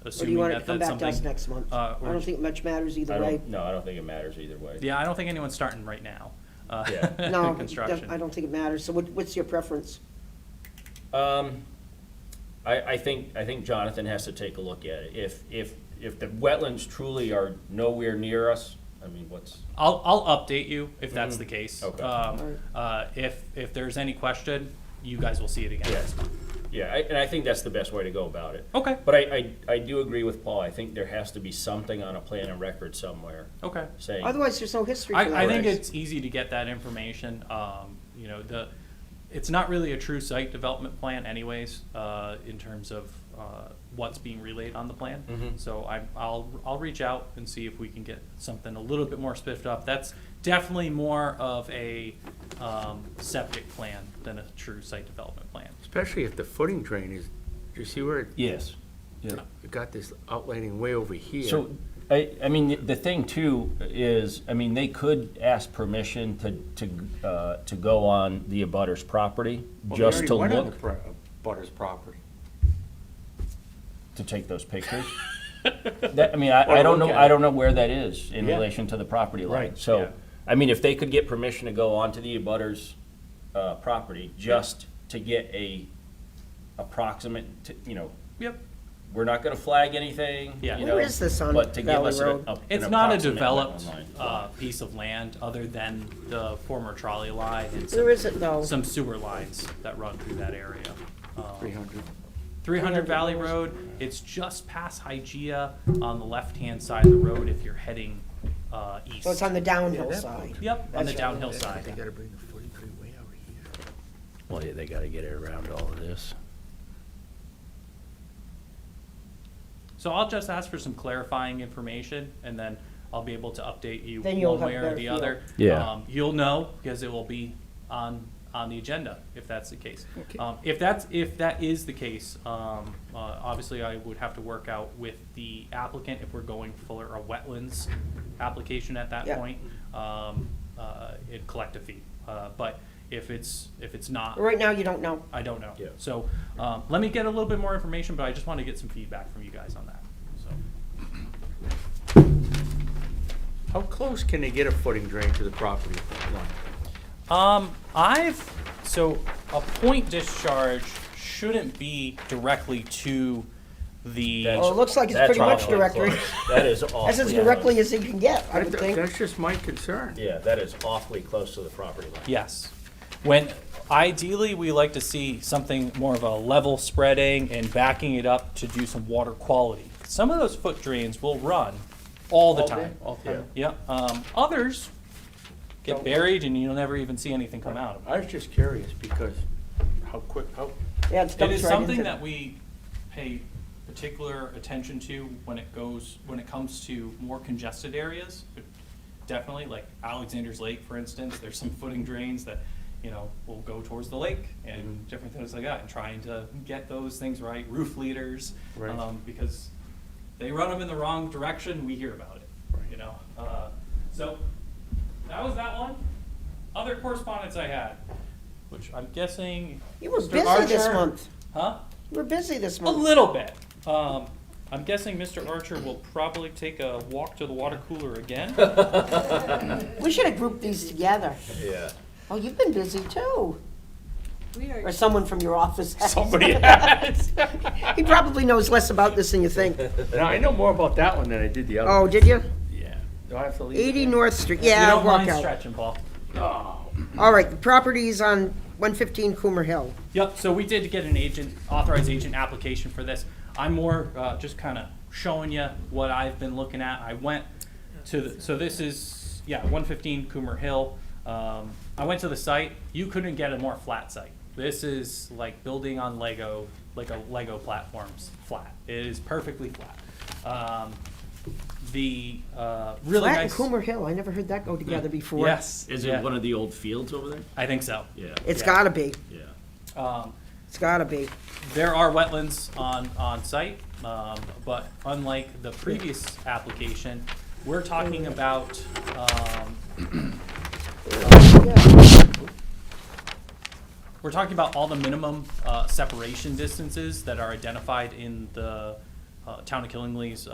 Or do you assuming want it that to come that's back to us something. next month? uh, I or don't j- think much matters I either way. don't, no, I don't think it matters either way. Yeah, I don't think anyone's starting right now. uh, Yeah. No, it don't- I Construction. don't think it matters. So what, what's your preference? Um, I, I think, I think Jonathan has to take a look at it. If, if, if the wetlands truly are nowhere near us, I mean, what's, I'll, I'll update you if that's the case. Mm. Okay. Um, Alright. uh, if, if there's any question, you guys will see it again. Yes. yeah, I, and I think that's the best way to go about it. Okay, But I, I, I do agree with Paul. I think there has to be something on a plan and record somewhere okay. saying. Otherwise, there's no history for I, I that. think Correct. it's easy to get that information. Um, you know, the, it's not really a true site development plan anyways, uh, in terms of, uh, what's being relayed on the plan. Mhm. So I, I'll, I'll reach out and see if we can get something a little bit more spiffed up. That's definitely more of a, um, septic plan than a true site development plan. Especially if the footing drain is, you see where it Yes. you got this outlining way over here? So, I, I mean, the thing too is, I mean, they could ask permission to, to, uh, to go on the abutter's property, Well, they just already to went on look, the pro- uh, Butters property. to take those pictures. That, I mean, I, Or I don't look know, at I it. don't know where that is in Yeah. relation to the property line. Right, yeah. So, I mean, if they could get permission to go onto the abutter's, uh, property, just to get a approximate, t- you know, Yep. we're not gonna flag anything, Yeah. you Where know, is this on but to give Valley us an- Road? a- an It's not a approximate developed, line. uh, piece of land other than the former trolley line and some There isn't though. some sewer lines that run through that area. Three hundred. 300 Valley Road, it's just past Hygeia on the left-hand side of the road if you're heading uh, east. So it's on the downhill Yeah, that- side. Yep, on the That's right. downhill They side. gotta bring the footing drain way over here. Well, yeah, they gotta get it around all of this. So I'll just ask for some clarifying information, and then I'll be able to update you Then you'll one have way a or better the feel. other. Yeah. Um, You'll know, because it will be on, on the agenda, if that's the case. Okay. Um, If that's, if that is the case, um, uh, obviously I would have to work out with the applicant if we're going for a wetlands application at that Yeah. point. Um, uh, it collect a fee, uh, but if it's, if it's not, Right now, you don't know. I don't know. Yeah. So, um, let me get a little bit more information, but I just want to get some feedback from you guys on that, so. How close can they get a footing drain to the property line? Um, I've so a point discharge shouldn't be directly to the. That's- Well, it looks like it's that's pretty much awfully directly. close. That is That's as awfully directly as close. you can get, I would think. That's just my concern. Yeah, that is awfully close to the property line. Yes, when ideally we like to see something more of a level spreading and backing it up to do some water quality. Some of those foot drains will run all the All day, time. all the time. Yeah. Um, others get buried and you'll never even see anything come out of them. I was just curious because how quick, how, Yeah, it's It is dumped right something into. that we pay particular attention to when it goes, when it comes to more congested areas. Definitely, like Alexander's Lake, for instance, there's some footing drains that, you know, will go towards the lake and different things like that, and trying to get those things right, roof leaders. Right. um, Because they run them in the wrong direction, we hear about it, you know? Uh, So, that was that one. Other correspondence I had, which I'm guessing. You were Mr. busy this Archer- month. Huh? Oh, You were busy this A month. little bit. Um, I'm guessing Mr. Archer will probably take a walk to the water cooler again. We should have grouped these together. Yeah. Oh, you've been busy too. We are, Or someone from your office. has. Somebody has. He probably knows less about this than you think. now I know more about that one than I did the other. Oh, did you? Yeah. Do I have to leave? Eighty North Street, You yeah, don't walk mind out. stretching, Paul. All right, the property's on one fifteen Coomer Hill. Yep, so we did get an agent, authorized agent application for this. I'm more uh, just kind of showing you what I've been looking at. I went to, the- so this is, yeah, 115 Coomer Hill. Um, I went to the site. You couldn't get a more flat site. This is like building on Lego, like a Lego platform's flat. It is perfectly flat. Um, The uh, really Flat and nice. Coomer Hill, I never heard that go together before. Yes. Is yeah, it one of the old fields over there? I think so. Yeah, It's Yeah. gotta be, yeah. Um, it's gotta be. There are wetlands on, on site, um, but unlike the previous application, we're talking about, um, we're talking about all the minimum, uh, separation distances that are identified in the, uh, Town of Killingley's